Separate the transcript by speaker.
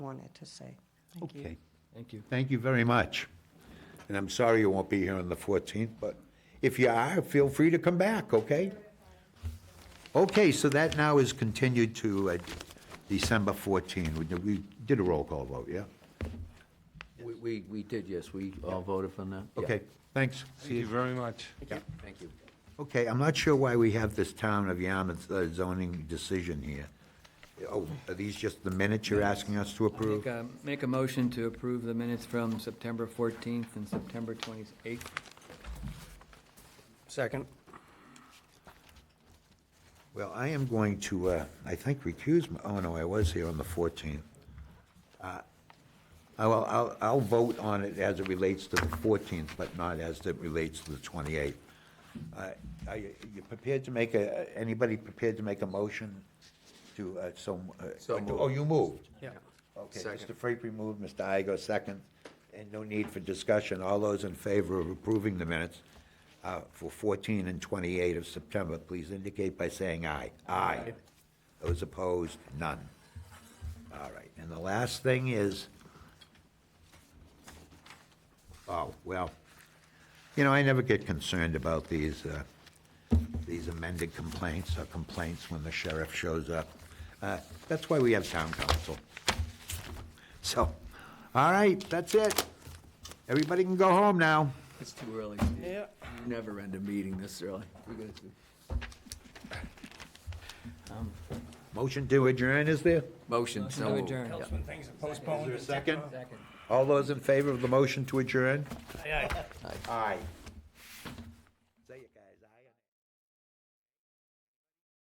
Speaker 1: wanted to say. Thank you.
Speaker 2: Okay,
Speaker 3: Thank you.
Speaker 2: thank you very much. And I'm sorry you won't be here on the 14th, but if you are, feel free to come back, okay? Okay, so that now is continued to uh, December 14. We did- We did a roll call vote, yeah?
Speaker 3: We, we, we did, yes, we all voted for that. Yeah.
Speaker 2: Okay, thanks.
Speaker 4: Thank you very much.
Speaker 3: Thank you.
Speaker 2: Okay, I'm not sure why we have this town of Yarmouth uh, zoning decision here. Oh, are these just the minutes you're asking us to approve?
Speaker 5: Make a, make a motion to approve the minutes from September 14th and September 28th.
Speaker 3: Second.
Speaker 2: Well, I am going to, uh, I think recuse, my- oh, no, I was here on the 14th. Uh, I will- I'll, I'll vote on it as it relates to the 14th, but not as it relates to the 28th. Uh, Are you you prepared to make a, anybody prepared to make a motion to, uh, so? uh,
Speaker 3: So moved.
Speaker 2: Oh, you moved?
Speaker 3: Yeah.
Speaker 2: Okay,
Speaker 3: Second.
Speaker 2: Mr. Frapery moved, Mr. Igo second, and no need for discussion. All those in favor of approving the minutes uh, for 14 and 28 of September, please indicate by saying aye. Aye. Those opposed, none. All right, and the last thing is, oh, well, you know, I never get concerned about these, uh, these amended complaints or complaints when the sheriff shows up. Uh, That's why we have town council. So, all right, that's it. Everybody can go home now.
Speaker 3: It's too early. Yeah. Never end a meeting this early. We gotta do-
Speaker 2: Motion to adjourn is there?
Speaker 3: Motion, so
Speaker 5: Motion to
Speaker 3: moved.
Speaker 5: adjourn.
Speaker 3: Yeah.
Speaker 2: Is there a second? All those in favor of the motion to adjourn? Aye. Aye.